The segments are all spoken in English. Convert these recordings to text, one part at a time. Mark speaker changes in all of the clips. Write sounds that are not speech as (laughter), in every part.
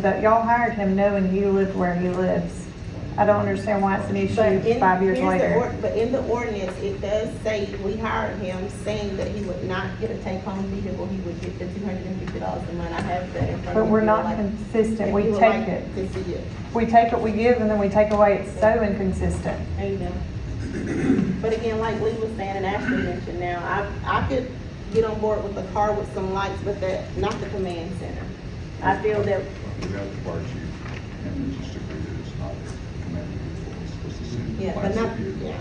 Speaker 1: But y'all hired him knowing he lived where he lives. I don't understand why it's an
Speaker 2: But
Speaker 1: issue
Speaker 2: in,
Speaker 1: five years
Speaker 2: here's the
Speaker 1: later.
Speaker 2: or- But in the ordinance, it does say we hired him saying that he would not get a take-home vehicle, he would get the two hundred and fifty dollars a month, I have that in front of me.
Speaker 1: But we're
Speaker 2: if you
Speaker 1: not
Speaker 2: would like-
Speaker 1: consistent.
Speaker 2: if
Speaker 1: We
Speaker 2: you would
Speaker 1: take
Speaker 2: like
Speaker 1: it.
Speaker 2: To see it,
Speaker 1: We take what we give and then we take away. It's so inconsistent.
Speaker 2: amen. (clears throat) But again, like Lee was saying and Ashley mentioned now, I, I could get on board with a car with some lights, but that, not the command center. I feel that
Speaker 3: We have the fire chief, and we just agree that it's not commanded before, it's supposed to send.
Speaker 2: Yeah, but not, yeah.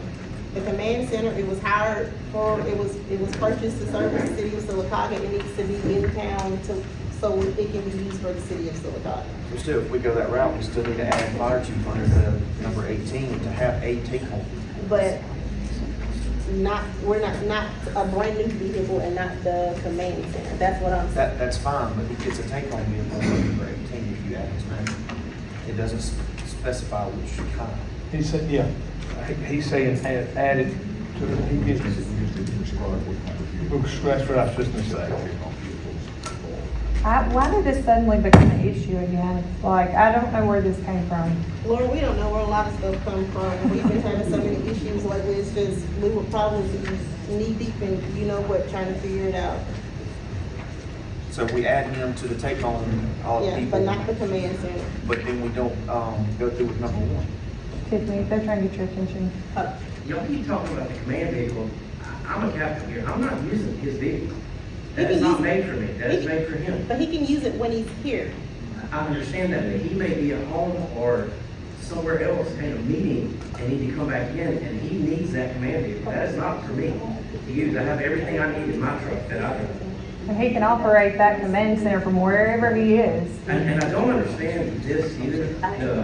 Speaker 2: The command center, it was hired for, it was, it was purchased to service the city of Silicotta. It needs to be in town to, so it can be used for the city of Silicotta.
Speaker 4: We still, if we go that route, we still need to add fire chief under the number eighteen to have a take home.
Speaker 2: But not, we're not, not a brand new vehicle and not the command center. That's what I'm saying.
Speaker 4: That, that's fine, but he gets a take home vehicle under number eighteen if you add his name. It doesn't s- specify which kind.
Speaker 5: He said, yeah, He- he's saying add- added to, the- he gets, Looks- that's what I was just gonna say.
Speaker 1: I, why did this suddenly become an issue again? Like, I don't know where this came from.
Speaker 2: Laura, we don't know where a lot of stuff come from. We've been having so many issues lately. It's just, we were probably knee deep in, you know what, trying to figure it out.
Speaker 4: So if we add him to the take home, all the
Speaker 2: Yeah, but
Speaker 4: people,
Speaker 2: not the command center.
Speaker 4: but then we don't, um, go through with number one.
Speaker 1: Tiffany, they're trying to get your attention.
Speaker 6: Y'all keep talking about the command vehicle. I- I'm a captain here. I'm not using his vehicle.
Speaker 2: He
Speaker 6: That is
Speaker 2: can
Speaker 6: not
Speaker 2: use-
Speaker 6: made for me. That
Speaker 2: he
Speaker 6: is
Speaker 2: can-
Speaker 6: made for him.
Speaker 2: But he can use it when he's here.
Speaker 6: I understand that, but he may be at home or somewhere else in a meeting and need to come back in, and he needs that command vehicle. That is not for me to use. I have everything I need in my truck that I can.
Speaker 1: And he can operate that command center from wherever he is.
Speaker 6: And, and I don't understand this either. The,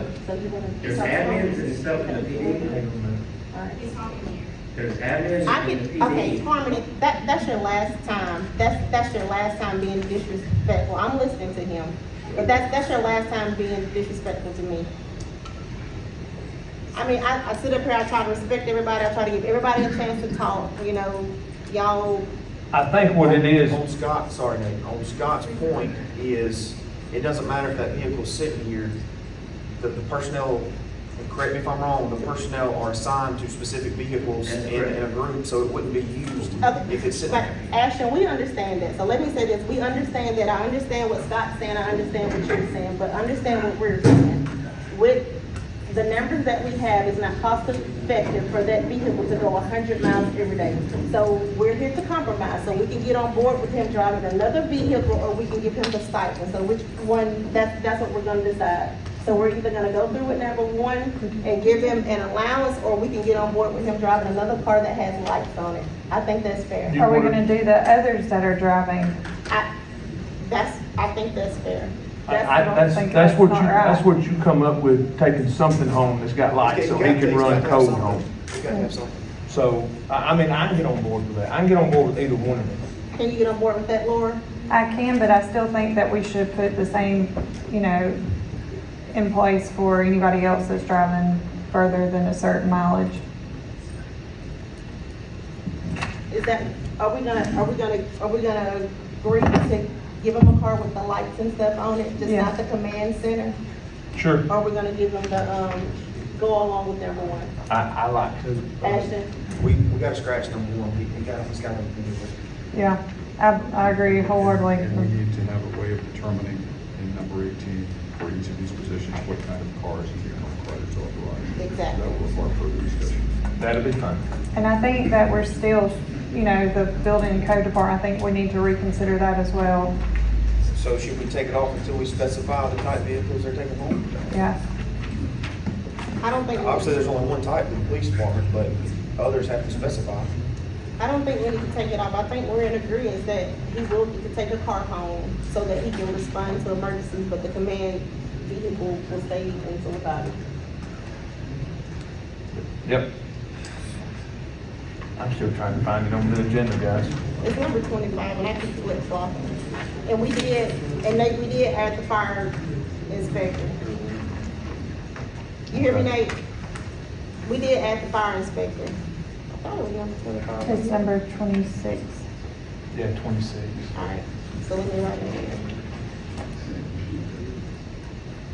Speaker 6: there's admins and stuff in the PD. There's admins
Speaker 2: I
Speaker 6: in the
Speaker 2: can, okay,
Speaker 6: PD.
Speaker 2: Harmony, that, that's your last time, that's, that's your last time being disrespectful, I'm listening to him. But that's, that's your last time being disrespectful to me. I mean, I, I sit up here, I try to respect everybody, I try to give everybody a chance to talk, you know, y'all,
Speaker 5: I think what it is,
Speaker 4: On Scott, sorry Nate, on Scott's point is, it doesn't matter if that vehicle's sitting here, the, the personnel, and correct me if I'm wrong, the personnel are assigned to specific vehicles in,
Speaker 6: That's
Speaker 4: in a group, so it wouldn't be used
Speaker 2: Okay,
Speaker 4: if it's sitting
Speaker 2: But
Speaker 4: there.
Speaker 2: Ashton, we understand that, so let me say this, we understand that, I understand what Scott's saying, I understand what you're saying, but understand what we're saying. With, the numbers that we have is not cost effective for that vehicle to go hundred miles every day. So we're here to compromise, so we can get on board with him driving another vehicle, or we can give him the stipend, so which one, that's, that's what we're gonna decide. So we're either gonna go through with number one and give him an allowance, or we can get on board with him driving another car that has lights on it. I think that's fair.
Speaker 5: You
Speaker 1: Are we
Speaker 5: wanna-
Speaker 1: gonna do the others that are driving?
Speaker 2: I, that's, I think that's fair.
Speaker 5: I,
Speaker 1: That's
Speaker 5: I,
Speaker 1: what I'm
Speaker 5: that's,
Speaker 1: thinking.
Speaker 5: that's what you,
Speaker 1: That's not right.
Speaker 5: that's what you come up with, taking something home that's got lights, so he can run code home.
Speaker 4: You gotta have something.
Speaker 5: So, I, I mean, I can get on board with that, I can get on board with either one of them.
Speaker 2: Can you get on board with that, Laura?
Speaker 1: I can, but I still think that we should put the same, you know, in place for anybody else that's driving further than a certain mileage.
Speaker 2: Is that, are we gonna, are we gonna, are we gonna agree to give him a car with the lights and stuff on it, just
Speaker 1: Yeah.
Speaker 2: not the command center?
Speaker 5: Sure,
Speaker 2: Or are we gonna give him the, um, go along with number one?
Speaker 5: I, I like to.
Speaker 2: Ashton,
Speaker 4: We, we gotta scratch number one, he, he got, he's got to do it.
Speaker 1: Yeah, I, I agree
Speaker 3: And we
Speaker 1: wholeheartedly.
Speaker 3: need to have a way of determining in number eighteen, for each of these positions, what kind of cars is being required to authorize.
Speaker 2: Exactly.
Speaker 3: That will require further discussion.
Speaker 5: That'll be fine.
Speaker 1: And I think that we're still, you know, the building and code department, I think we need to reconsider that as well.
Speaker 4: So should we take it off until we specify the type vehicles they're taking home?
Speaker 1: Yeah,
Speaker 2: I don't think,
Speaker 4: Obviously,
Speaker 2: I
Speaker 4: there's only one type in the police department, but others have to specify.
Speaker 2: don't think we need to take it off. I think we're in agreement that he will need to take a car home so that he can respond to emergencies, but the command vehicle will stay in Silicotta.
Speaker 5: Yep. I'm still trying to find it on the agenda, guys.
Speaker 2: It's number twenty-five, and I keep flip flopping. And we did, and Nate, we did add the fire inspector. You hear me, Nate? We did add the fire inspector. I thought it was number twenty-five.
Speaker 1: it's number twenty-six.
Speaker 5: Yeah, twenty-six.
Speaker 2: Alright, so let me write it down.